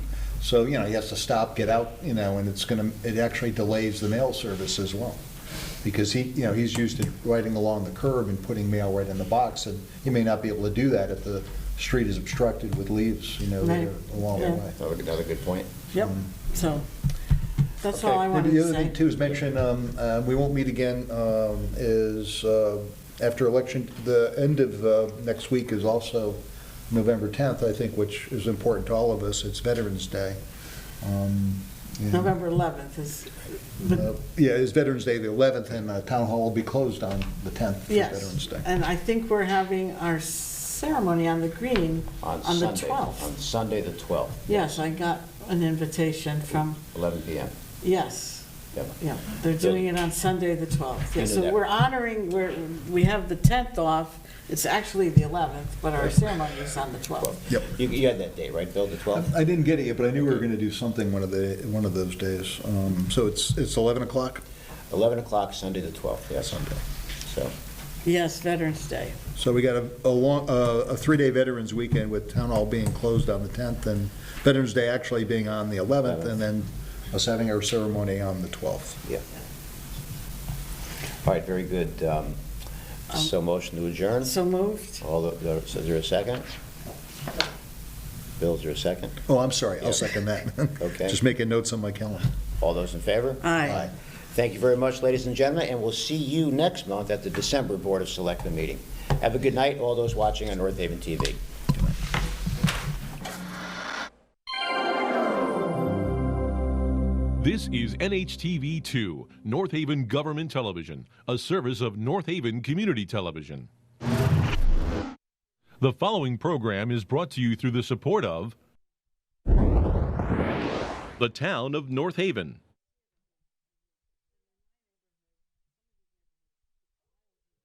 So, you know, he has to stop, get out, you know, and it's going to, it actually delays the mail service as well. Because he, you know, he's used to riding along the curb and putting mail right in the box, and he may not be able to do that if the street is obstructed with leaves, you know, that Right. are along the Yeah. way. Another another good point. Yep, so, that's Um, Okay. all I wanted The to other thing say. too is mention, um, uh, we won't meet again, um, is uh, after election, the end of uh, next week is also November 10th, I think, which is important to all of us. It's Veterans Day. Um, and, November 11th is, uh, but, Yeah, it's Veterans Day, the 11th, and uh, Town Hall will be closed on the 10th for Veterans yes, Day. and I think we're having our ceremony on the green on the Sunday- 12th. On Sunday, the 12th, Yes, I got an invitation from, 11 PM. yes, Yep. yeah, they're doing it on Sunday, the 12th. Yeah, Into so that. we're honoring, we're, we have the 10th off, it's actually the 11th, but our ceremony is on the 12th. 12th. Yep. You- You had that date, right, Bill, the 12th? I didn't get it yet, but I knew we were going to do something one of the, one of those days. Um, So it's, it's 11 o'clock? 11 o'clock, Sunday, the 12th, yeah, Sunday. So, Yes, Veterans Day. So we got a, a long, uh, a three-day Veterans Weekend with Town Hall being closed on the 10th and Veterans Day actually being on the 11th and then us having our ceremony on the 12th. yeah. All right, very good. Um, So motion to adjourn? So moved? All the- the, so is there a second? Bill, is there a second? Oh, I'm sorry, Yeah. I'll second that. Okay. Just making notes on my calendar. All those in favor? Aye. Thank you very much, ladies and gentlemen, and we'll see you next month at the December Board of Selectmen meeting. Have a good night, all those watching on North Haven TV. This is NHTV2, North Haven Government Television, a service of North Haven Community Television. The following program is brought to you through the support of the Town of North Haven.